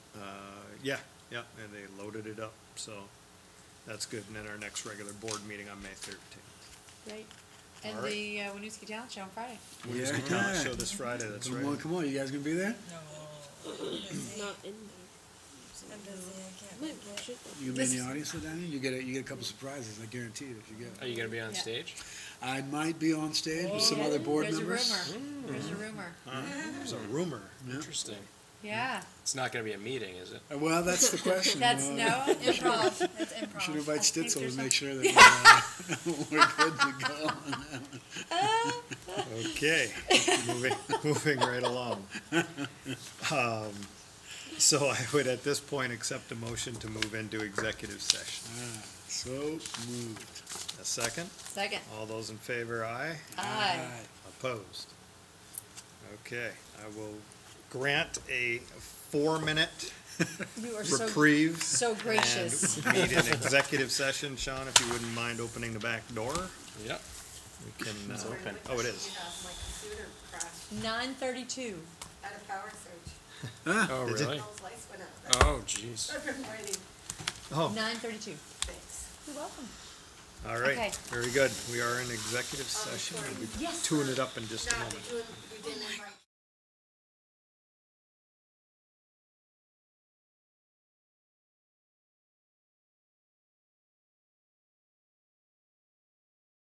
Uh, yeah, yeah, and they loaded it up, so that's good. And then our next regular board meeting on May thirteenth. Great. And All right. the uh, Winooski Talent Show on Friday. Winooski Talent Show this Friday, that's Come on, right. come on, you guys gonna be there? Not in there. I'm busy, I can't Wait, make it. shit. You gonna be in This- the audience with Danny? You get a, you get a couple surprises, I guarantee it, if you Are get it. you gonna be on Yeah. stage? I might be on stage with some other board Oh, There's members. a rumor. There's a rumor. There's a rumor. Interesting. Yeah. It's not gonna be a meeting, is it? Uh, Well, that's the question. That's Uh, no improv. That's we Should improv. invite I think Stitzel there's to make some- sure that uh, we're good Okay, to go. moving, moving right along. Um, So I would at this point accept a motion to move into executive session. Ah, So moved. A second? Second. All those in favor, aye? Aye. Aye. Opposed? Okay, I will grant a four-minute You are so, reprieve. so gracious. And meet in executive session, Sean, if you wouldn't mind opening the back door. Yep. We can, uh, open. oh, it is. My computer crashed Nine thirty-two. out of power surge. Oh, Is it- really? Those lights went out. Oh, jeez. I've been waiting. Oh, Nine thirty-two. Thanks. You're welcome. all Okay. right, very good. We are in executive session. We'll be Yes. Tune it up in just a Not moment. doing, we didn't invite